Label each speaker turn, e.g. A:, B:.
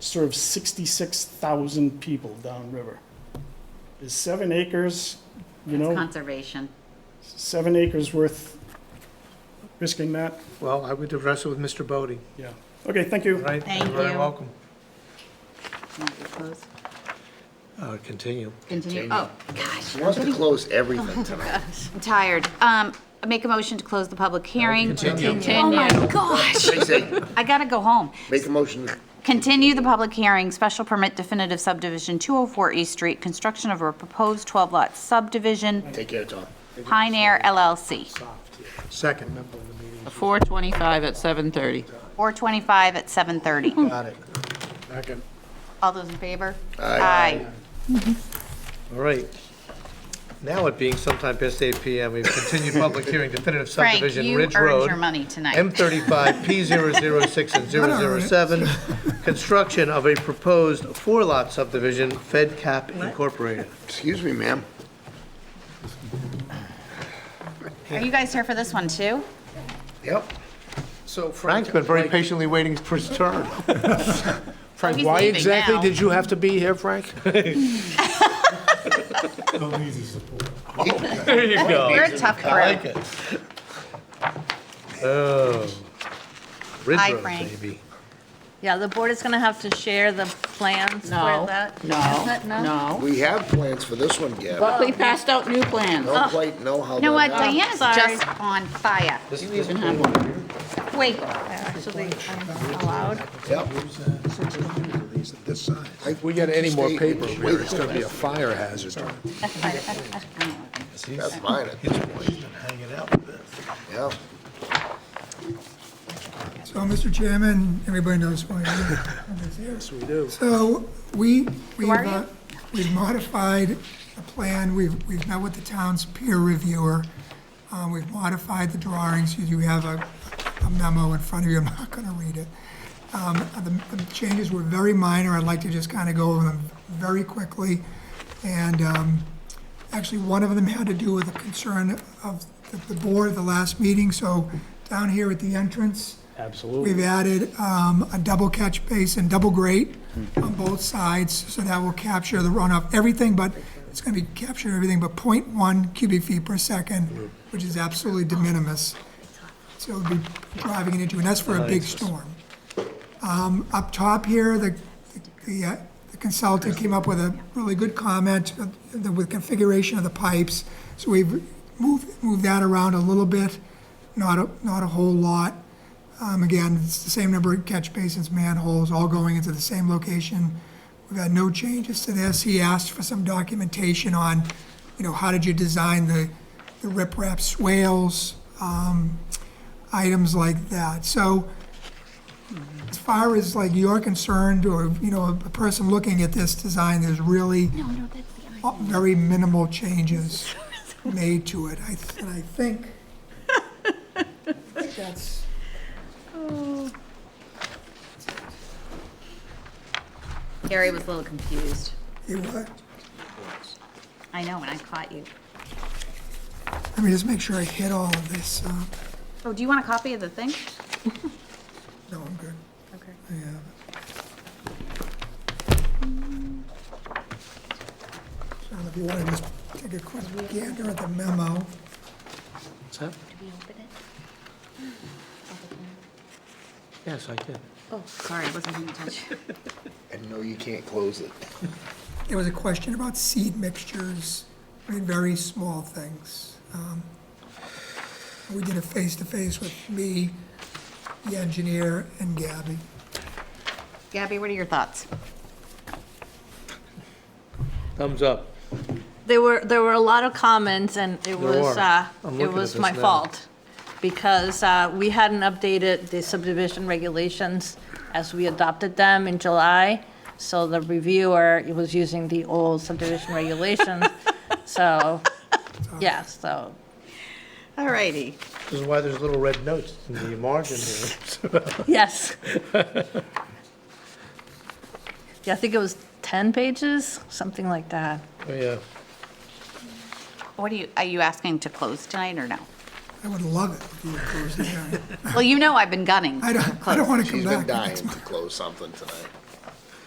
A: serves 66,000 people downriver. Is seven acres, you
B: It's
A: know,
B: conservation.
A: seven acres worth risking that?
C: Well, I would address it with Mr. Bodie,
A: Yeah. Okay, thank you.
C: right?
B: Thank
C: You're very
B: you.
C: welcome.
B: Want to close?
C: Uh, Continue.
B: Continue. Oh, gosh,
D: She wants to close everything tonight.
B: I'm tired. Um, I Make a motion to close the public hearing.
C: Continue.
B: Oh, my gosh.
D: They say,
B: I gotta go home.
D: make a motion,
B: Continue the public hearing, special permit definitive subdivision 204 East Street, construction of a proposed 12-lot subdivision,
D: take care, Tom.
B: Pine Air LLC,
C: Second.
E: 425 at 7:30.
B: 425 at 7:30.
C: Got it. Second.
B: All those in favor?
D: Aye.
C: All right. Now it being sometime past 8 PM, we've continued public hearing definitive
B: Frank,
C: subdivision
B: you
C: Ridge
B: earned
C: Road.
B: your money tonight.
C: M35, P006 and 007, construction of a proposed four-lot subdivision, Fed Cap Incorporated.
D: Excuse me, ma'am.
B: Are you guys here for this one, too?
C: Yep.
F: So Frank,
C: Frank's been very patiently waiting for his turn.
F: Frank,
B: he's
F: why
B: leaving
F: exactly
B: now.
F: did you have to be here, Frank?
C: There you go.
B: You're a tough
C: Oh, I
B: crowd.
C: like it. Oh. Ridge
B: Hi,
C: Road,
B: Frank.
C: baby.
G: Yeah, the board is going to have to share the plans for
E: No,
G: that.
E: no,
G: Isn't it?
E: no.
D: We have plans for this one, Gavin.
E: But we passed out new plans.
D: Don't quite know how.
B: uh, You know what,
C: Oh,
D: they're-
B: Diana's
G: sorry.
B: just on fire.
C: This-
E: We
C: this-
E: even have one.
B: Wait,
G: Actually, I'm allowed.
D: Yep. I-
F: We get any more
D: Stay-
F: paper, over
D: wait
F: here,
D: a
F: it's going to be a fire hazard.
D: That's mine,
C: He's been hanging out with this.
D: yeah.
H: So, Mr. Chairman, everybody knows why I'm here. Yes, we do. So, we, we've,
B: are you?
H: uh, we've modified the plan, we've, we've met with the town's peer reviewer, um, we've modified the drawings, you do have a a memo in front of you, I'm not gonna read it. Um, the, the changes were very minor, I'd like to just kinda go over them very quickly. And, um, actually, one of them had to do with a concern of the- the board at the last meeting, so down here at the entrance,
B: Uh,
H: We've added um, a double catch basin, double grate on both sides, so that will capture the runoff, everything but, it's gonna be capturing everything but 0.1 cubic feet per second, which is absolutely de minimis. So it'll be driving it into, and that's for a big storm. Um, Up top here, the the uh, the consultant came up with a really good comment uh, the- with configuration of the pipes, so we've moved moved that around a little bit, not a not a whole lot. Um, Again, it's the same number of catch basins, manholes, all going into the same location. We've had no changes to this. He asked for some documentation on, you know, how did you design the, the riprap swales, um, items like that. So as far as like you're concerned, or, you know, a person looking at this design, there's really very minimal changes made to it. I, th- and I think that's
B: Gary was a little confused.
H: It what?
B: I know, when I caught you.
H: Let me just make sure I hit all of this. uh,
B: Oh, do you want a copy of the thing?
H: No, I'm good.
B: Okay.
H: Yeah. So if you want to just take a quick gander at the memo.
C: Yes, I did.
B: Oh, sorry, I wasn't paying attention.
D: And no, you can't close it.
H: There was a question about seed mixtures, I mean, very small things. Um, We did a face-to-face with me, the engineer, and Gabby.
B: Gabby, what are your thoughts?
C: Thumbs up.
G: There were, there were a lot of comments, and it was,
C: were.
G: uh,
C: I'm
G: it
C: looking at
G: was
C: this
G: my
C: now.
G: fault, because uh, we hadn't updated the subdivision regulations as we adopted them in July, so the reviewer was using the old subdivision regulations, so, yeah, so
B: All righty.
C: This is why there's little red notes in the margin here.
G: Yes. Yeah, I think it was 10 pages, something like that.
C: Oh, yeah.
B: What are you, are you asking to close tonight or no?
H: I would love it if you would close the hearing.
B: Well, you know I've been gunning.
H: I don't, I don't want to come
D: She's
H: back.
D: been dying to close something tonight.